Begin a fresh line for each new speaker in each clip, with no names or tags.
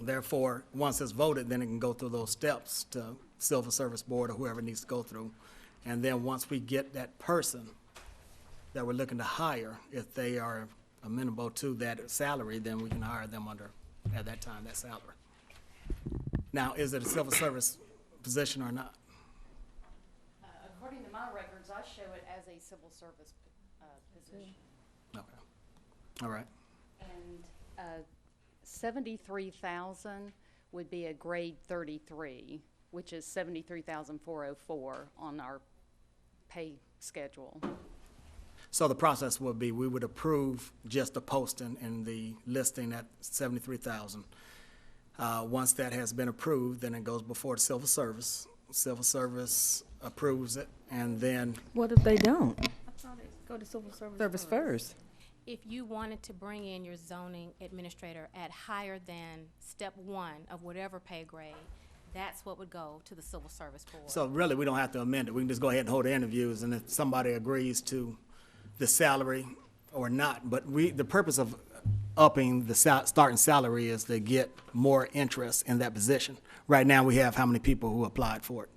Therefore, once it's voted, then it can go through those steps to Civil Service Board or whoever it needs to go through. And then once we get that person that we're looking to hire, if they are amenable to that salary, then we can hire them under, at that time, that salary. Now, is it a civil service position or not?
Uh, According to my records, I show it as a civil service uh, position.
Okay. All right.
And uh, seventy-three thousand would be a grade thirty-three, which is seventy-three thousand four oh four on our pay schedule.
So the process would be, we would approve just the posting and the listing at seventy-three thousand. Uh, once that has been approved, then it goes before the civil service. Civil service approves it, and then,
What if they don't?
Go to civil service.
Service first.
If you wanted to bring in your zoning administrator at higher than step one of whatever pay grade, that's what would go to the civil service board.
so really, we don't have to amend it. We can just go ahead and hold the interviews, and if somebody agrees to the salary or not, but we, the purpose of upping the sal- starting salary is to get more interest in that position. Right now, we have how many people who applied for it?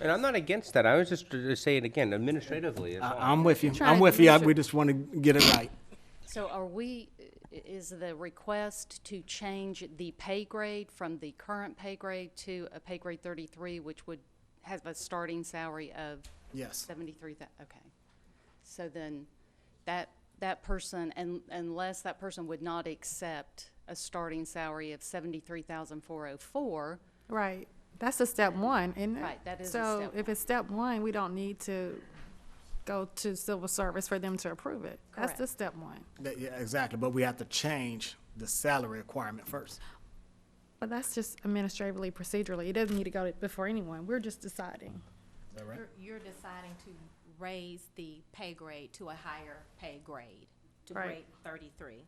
And I'm not against that. I was just uh, saying again, administratively. it's all.
I- I'm with you.
Try
I'm
to
with you. I-
measure-
We just want to get it right.
So are we, i- is the request to change the pay grade from the current pay grade to a pay grade thirty-three, which would have a starting salary of
Yes.
Seventy-three thou, okay. So then, that, that person, and unless that person would not accept a starting salary of seventy-three thousand four oh four,
Right, that's a step one, isn't it?
Right, that is a
So
step
if it's step one, we don't need to go to civil service for them to approve it. That's the
Correct.
step one.
That- Yeah, exactly. But we have to change the salary requirement first.
But that's just administratively, procedurally. It doesn't need to go before anyone. We're just deciding.
Is that right?
You're- You're deciding to raise the pay grade to a higher pay grade, to
Right.
grade thirty-three.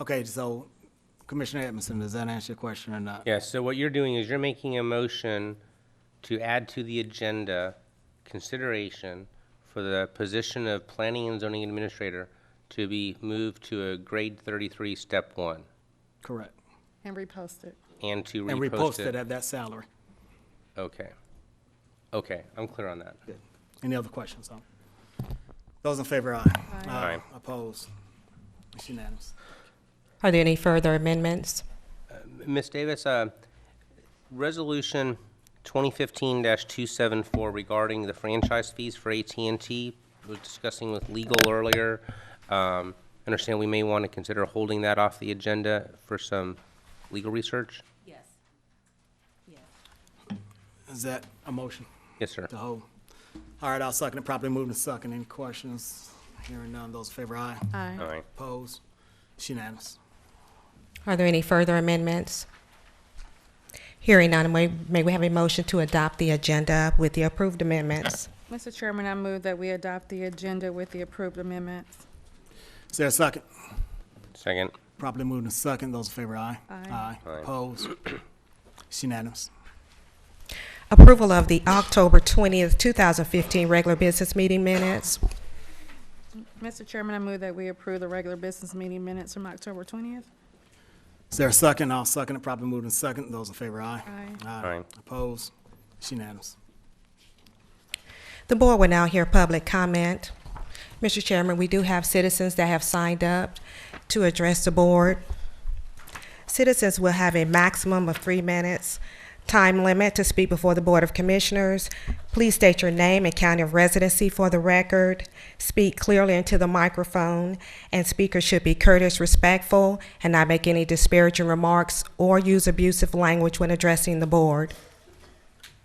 Okay, so Commissioner Edmondson, does that answer your question or not?
Yeah, so what you're doing is you're making a motion to add to the agenda consideration for the position of planning and zoning administrator to be moved to a grade thirty-three, step one,
Correct.
And repost it.
and to
And
repost
reposted
it.
at that salary.
Okay. Okay, I'm clear on that.
Good. Any other questions? huh? Those in favor, aye. Uh,
Aye.
Opposed? It's unanimous.
Are there any further amendments?
Ms. Davis, uh, Resolution 2015-274 regarding the franchise fees for at and T. we were discussing with legal earlier. Um, Understand we may want to consider holding that off the agenda for some legal research?
Yes. Yes.
Is that a motion
Yes, sir.
to hold? All right, I'll second it. Properly moved and second. Any questions? Hearing none. Those in favor, aye.
Aye.
All right.
Opposed? It's unanimous.
Are there any further amendments? Hearing none, may, may we have a motion to adopt the agenda with the approved amendments?
Mr. Chairman, I move that we adopt the agenda with the approved amendments.
Is there a second?
Second.
Properly moved and second. Those in favor, aye.
Aye.
Aye.
Opposed? It's unanimous.
Approval of the October 20th, 2015 regular business meeting minutes.
Mr. Chairman, I move that we approve the regular business meeting minutes from October twentieth.
Is there a second? I'll second it. Properly moved and second. Those in favor, aye.
Aye.
Aye.
Opposed? It's unanimous.
The board will now hear public comment. Mr. Chairman, we do have citizens that have signed up to address the board. Citizens will have a maximum of three minutes time limit to speak before the Board of Commissioners. Please state your name and county of residency for the record. Speak clearly into the microphone, and speakers should be courteous, respectful, and not make any disparaging remarks or use abusive language when addressing the board.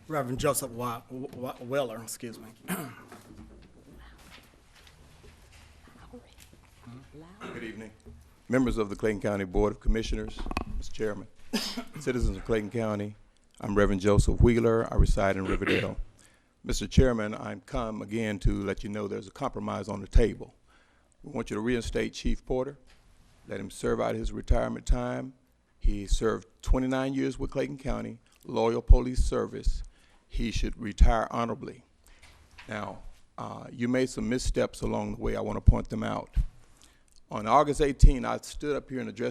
Reverend Joseph Wa- Wa- Weller, excuse me.
Good evening. Members of the Clayton County Board of Commissioners, Mr. Chairman, citizens of Clayton County, I'm Reverend Joseph Wheeler. I reside in Riverdale. Mr. Chairman, I'm come again to let you know there's a compromise on the table. We want you to reinstate Chief Porter, let him serve out his retirement time. He served 29 years with Clayton County, loyal police service. He should retire honorably. Now, uh, you made some missteps along the way. I want to point them out. On August 18, I stood up here and addressed